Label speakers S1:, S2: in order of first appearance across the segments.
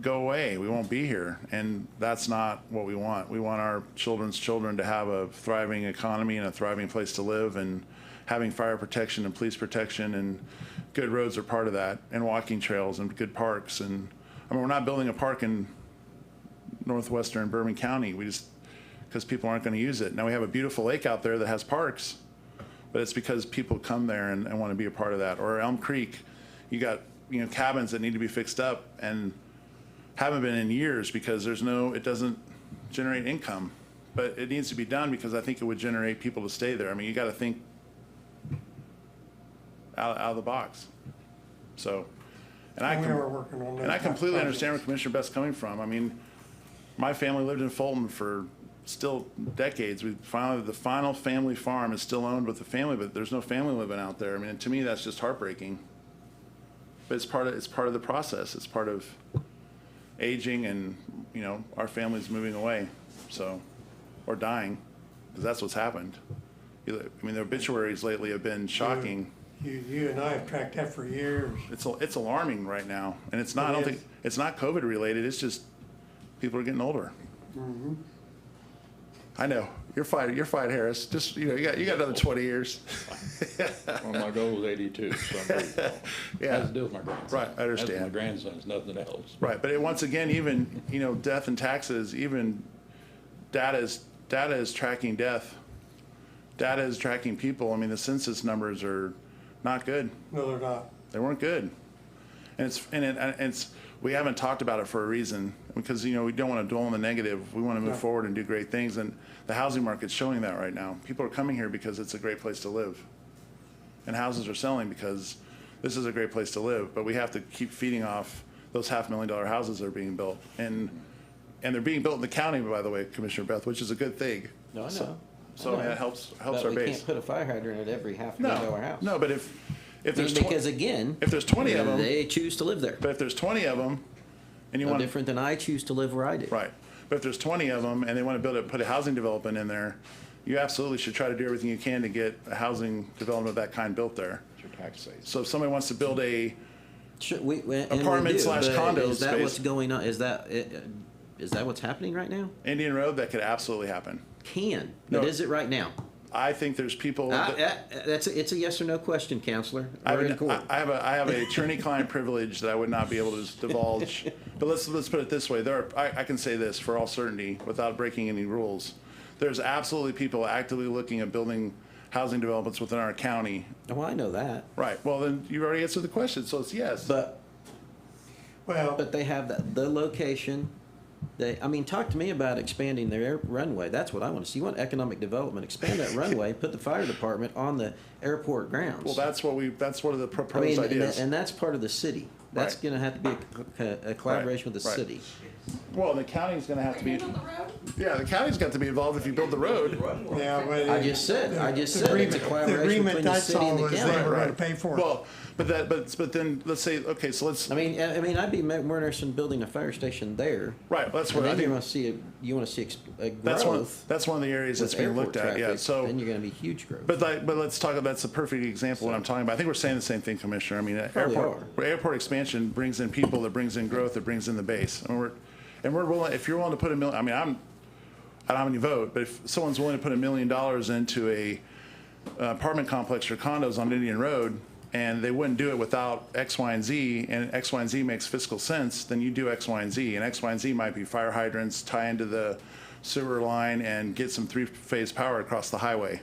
S1: go away. We won't be here. And that's not what we want. We want our children's children to have a thriving economy and a thriving place to live. And having fire protection and police protection and good roads are part of that, and walking trails and good parks. And I mean, we're not building a park in northwestern Bourbon County. We just, because people aren't going to use it. Now we have a beautiful lake out there that has parks, but it's because people come there and, and want to be a part of that. Or Elm Creek, you got, you know, cabins that need to be fixed up and haven't been in years because there's no, it doesn't generate income. But it needs to be done because I think it would generate people to stay there. I mean, you got to think out, out of the box. So, and I
S2: We
S1: com-
S2: are working on that.
S1: and I completely understand where Commissioner Best's coming from. I mean, my family lived in Fulton for still decades. We finally, the final family farm is still owned with the family, but there's no family living out there. I mean, to me, that's just heartbreaking. But it's part of, it's part of the process. It's part of aging and, you know, our family's moving away, so, or dying, because that's what's happened. You know, I mean, the obituaries lately have been shocking.
S2: You, you and I have tracked that for years.
S1: It's, al- it's alarming right now, and it's not, I don't
S2: It
S1: think,
S2: is.
S1: it's not COVID related, it's just people are getting older.
S2: Mm-hmm.
S1: I know, you're fine, you're fine, Harris, just, you know, you got, you got another twenty years.
S3: Well, my goal is eighty-two, so I'm pretty tall.
S1: Yeah.
S3: Has to do with my grandson.
S1: Right, I
S3: That's my
S1: understand.
S3: grandson, it's nothing else.
S1: Right, but it, once again, even, you know, death and taxes, even data is, data is tracking death. Data is tracking people, I mean, the census numbers are not good.
S2: No, they're not.
S1: They weren't good. And it's, and it, and it's, we haven't talked about it for a reason, because, you know, we don't want to dwell on the negative. We want to move
S2: Yeah.
S1: forward and do great things, and the housing market's showing that right now. People are coming here because it's a great place to live. And houses are selling because this is a great place to live, but we have to keep feeding off those half-million dollar houses that are being built. And, and they're being built in the county, by the way, Commissioner Beth, which is a good thing.
S4: No, I
S1: So-
S4: know.
S1: So, I mean, that helps, helps
S4: But
S1: our
S4: we
S1: base.
S4: can't put a fire hydrant at every half million dollar
S1: No,
S4: house.
S1: no, but if, if there's. twen-
S4: because again,
S1: if there's 20 of 'em-
S4: they choose to live there.
S1: But if there's 20 of them and you
S4: No
S1: want,
S4: different than I choose to live where I do.
S1: right, but if there's 20 of them and they want to build a, put a housing development in there, you absolutely should try to do everything you can to get a housing development of that kind built there.
S3: It's your tax savings.
S1: So if somebody wants to build a,
S4: Sure, we, we, and we
S1: Apartment
S4: do,
S1: slash
S4: but
S1: condo
S4: Is that
S1: space.
S4: what's going on? Is that i- uh, is that what's happening right now?
S1: Indian Road, that could absolutely happen.
S4: Can but
S1: No.
S4: is it right now?
S1: I think there's people.
S4: I,
S1: that-
S4: I, that's a, it's a yes or no question, counselor.
S1: I,
S4: We're in
S1: would,
S4: court.
S1: I, I have a I have a attorney-client privilege that I would not be able to just divulge. But let's let's put it this way: there are I, I can say this for all certainty without breaking any rules. There's absolutely people actively looking at building housing developments within our county.
S4: well, Oh, I know that,
S1: Right. Well, then you already answered the question, so it's yes.
S4: but
S2: Well,
S4: but they have that the location. They, I mean, talk to me about expanding their air runway. That's what I want to see. You want economic development? Expand that runway. Put the fire department on the airport grounds.
S1: well, that's what we that's one of the
S4: I
S1: proposed
S4: mean, and,
S1: ideas.
S4: tha- and that's part of the city. That's
S1: Right.
S4: going to have to be a co- a, collaboration with the
S1: right.
S4: city.
S1: well, the county's going to have to be.
S5: Handle the road?
S1: Yeah, the county's got to be involved if you build the road.
S2: yeah, but.
S4: I just said- I just said it's a
S2: agreement-
S4: collaboration between the city and
S2: agreement I saw
S4: the
S2: was
S4: county.
S2: they were gonna
S1: Right.
S2: pay for it.
S1: Well, but that but but then let's say okay, so let's
S4: I mean, I I mean, I'd be ma- more interested in building a fire station there.
S1: right. That's
S4: And
S1: what I
S4: then you
S1: think.
S4: want to see, a- you want to see ex- a
S1: That's one,
S4: growth
S1: that's one of the areas that's
S4: with
S1: being looked
S4: airport
S1: at, yeah,
S4: traffic. Then
S1: so,
S4: you're going to be huge growth.
S1: but like, but let's talk, that's a perfect example of what I'm talking about. I think we're saying the same thing, Commissioner, I mean,
S4: Probably
S1: airport, airport expansion brings in people, that brings in growth, that brings in the base. And we're, and we're willing, if you're willing to put a million, I mean, I'm, I don't have any vote, but if someone's willing to put a million dollars into a uh, apartment complex or condos on Indian Road, and they wouldn't do it without X, Y, and Z, and X, Y, and Z makes fiscal sense, then you do X, Y, and Z. And X, Y, and Z might be fire hydrants, tie into the sewer line, and get some three-phase power across the highway.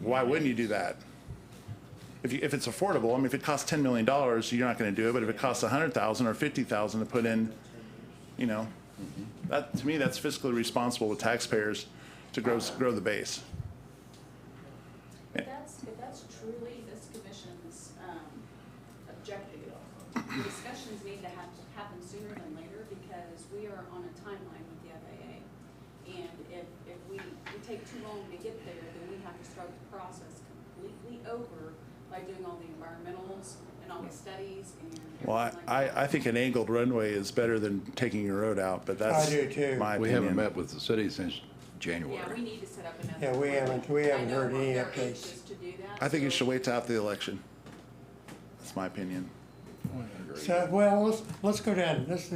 S1: Why wouldn't you do that? If, you, if it's affordable, I mean, if it costs $10 million, you're not going to do it, but if it costs 100000 or 50000 to put in, you know, that, to me, that's fiscally responsible with taxpayers to grow, grow the base.
S5: If that's, if that's truly this commission's um, objective, the discussions need to hap- happen sooner than later because we are on a timeline with the FAA. And if, if we, we take too long to get there, then we have to start the process completely over by doing all the environmentals and all the studies and everything
S1: Well, I,
S5: like that.
S1: I, I think an angled runway is better than taking your road out, but that's.
S2: do too.
S1: My
S3: We haven't
S1: opinion.
S3: met with the city since
S5: Yeah, we
S3: January.
S5: need to set up another.
S2: Yeah, we haven't- we haven't
S5: I know
S2: heard any
S5: they're
S2: updates.
S5: anxious to do that,
S1: I think you
S5: so-
S1: should wait till after the election. That's my opinion.
S3: agree.
S2: So, well, let's, let's go down, let's